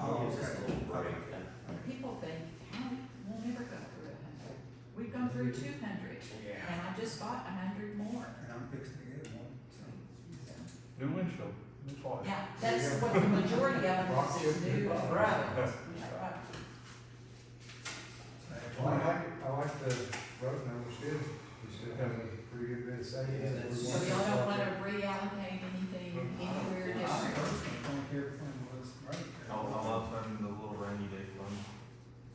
Oh, over two hundred, Yeah. and I just bought a hundred more. And I'm fixing to get one, so. So, New windshield, new tires. Yeah, that's what the majority Rock of it is, chips, is new rock. roads. Well, I like, like- I like the road numbers too, we still have a pretty good bit of savings. Yeah, that's- So y'all don't wanna reallocate anything anywhere I different? personally don't care if one was right. I love having the little rainy day fund.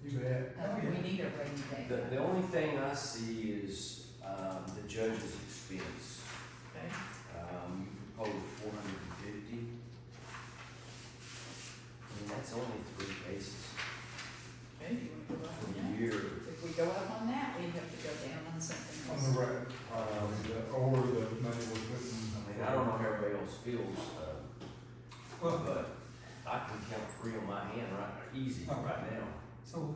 You bet. Uh, we need a rainy The, day. the only thing I see is, um, the judge's expense. Okay. Um, you proposed four hundred and fifty. I mean, that's only three cases Okay, you wanna go up for on the that? year. If we go up on that, we have to go down on something else. On the road, um, the- or the money we're putting. I mean, I don't know how everybody else feels, uh, Well, but I can count three on my hand right, easy Oh. right now. so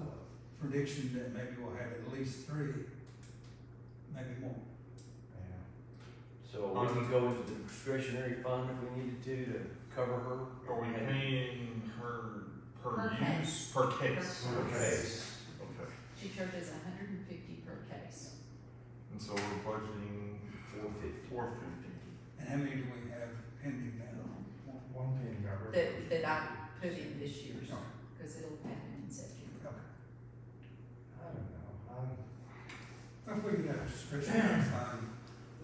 prediction that maybe we'll have at least three, maybe more. So we can go into the discretionary fund if we needed to, to cover her. Are we paying her per Per use, per case? Per Per case. Okay, She charges a hundred and fifty per case. and so we're budgeting Four fifty. four fifty. And how many do we have pending now? One. One thing I read. That, that I put in this year's, Okay, cause it'll happen in September. okay. I don't know, I, If we could have a discretionary fund,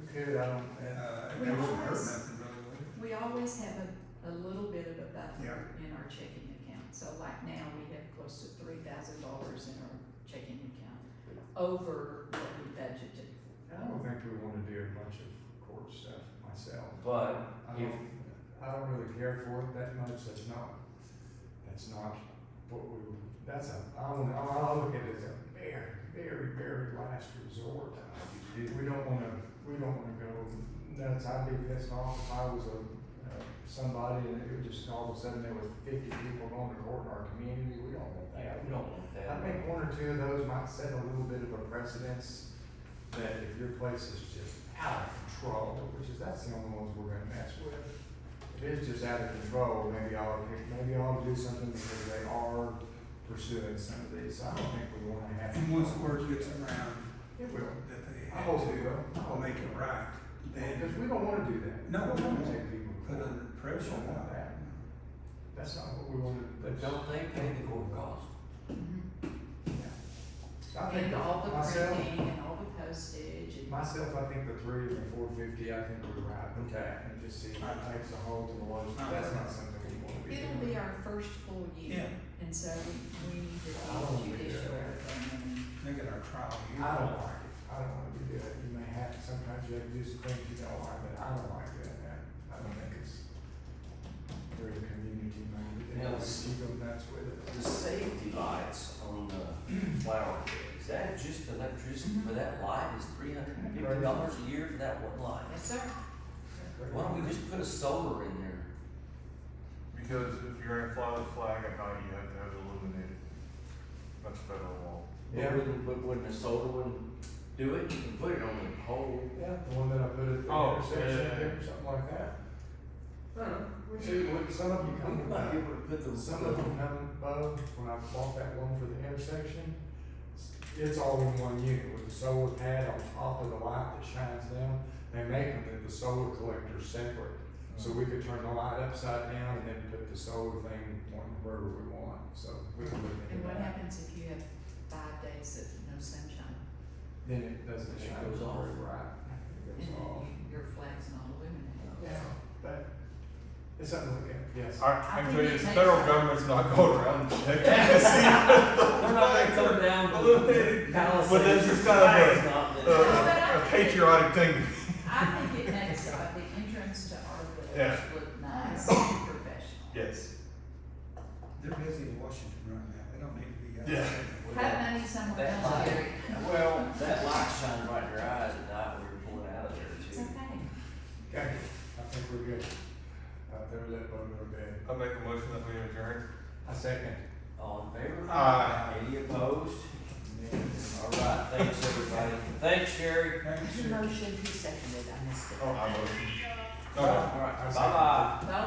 we could, I don't, uh, uh, it We wouldn't hurt always- nothing really, would it? We always have a, a little bit of a Yeah. buffer in our checking account, so like now, we have close to three thousand dollars in our checking account over what we budgeted. I don't think we wanna do a bunch of court stuff myself. But I don't, I don't really care for it that much, that's not, that's not what we, that's a, I don't, I, I look at it as a very, very, very last resort. We don't wanna, we don't wanna go nuts, I'd be pissed off if I was a, uh, somebody and it would just all of a sudden there was fifty people going to court in our community, we don't want Yeah, that. we don't want that. I think one or two of those might set a little bit of a precedence that if your place is just out of control, which is, that's the only ones we're gonna mess with. If it's just out of control, maybe I'll, maybe I'll do something because they are pursuing some of these. I don't think we wanna have. And once word gets around It will. that they I have hope it to, will. will make it right, Because then we don't wanna do that. No, we don't. We don't uh, wanna take people. to put court. under pressure We don't on want that. that. That's not what we wanna. But don't they pay the court costs? I think And all the myself- printing and all the postage and. Myself, I think the three and the four fifty, I think we're right. Okay. And just see, it takes a hold to the lowest, Uh-huh. that's not something we want to be It'll be doing. our first full year, and so we- we need to I be don't think judicial that- everything. make it our trial year. I don't like it, I don't wanna do that, you may have, sometimes you have to do some things you don't like, but I don't like doing that, I don't think it's very community minded, and Yeah. you go nuts with it. The safety lights on the flower bed, is that just electricity Mm-hmm. for that light is three hundred and fifty dollars a year for that one light? Yes, sir. Why don't we just put a solar in there? Because if you're gonna fly the flag at night, you have to have it illuminated. That's federal law. But Yeah. wouldn't- But wouldn't a solar one do it? You can put it on the pole. Yeah, the one that I put at the Oh, intersection yeah. there, or something like that. No, no. See, what, some of you come We to might be able to put the. Some of them come above, when I bought that one for the intersection, it's all in one unit with the solar pad on top of the light that shines down. They make them that the solar collector's separate, so we could turn the light upside down and then put the solar thing on wherever we want, so we can look And into what that. happens if you have five days of no sunshine, Then it doesn't It shine goes very off. bright. It and goes off. then your flag's not illuminated? Yeah, but it's something to look at, yes. I, I I think can tell you, it the makes federal sense. government's not going around checking to see They're not gonna come down to the Illuminated. palisades. But that's just kind of a- It's not if, that- Uh-huh. uh, a patriotic thing. I think it makes uh, the entrance to our village Yeah. look nice and professional. Yes. They're busy in Washington right now, they don't need to be out Yeah. there. Have money somewhere That else, light. Jerry. Well, that light shined right in your eyes at night when we were pulling out of there It's too. okay. Okay, I think we're good. Uh, they're let them go to bed. I make a motion that we adjourn. I second. All in favor? Aye. Any opposed? All right, thanks everybody. Thanks, Sherry. Thank you, sir. motion, who seconded, I missed it. Oh, I motion. All Okay. right, I second. Bye-bye. Well,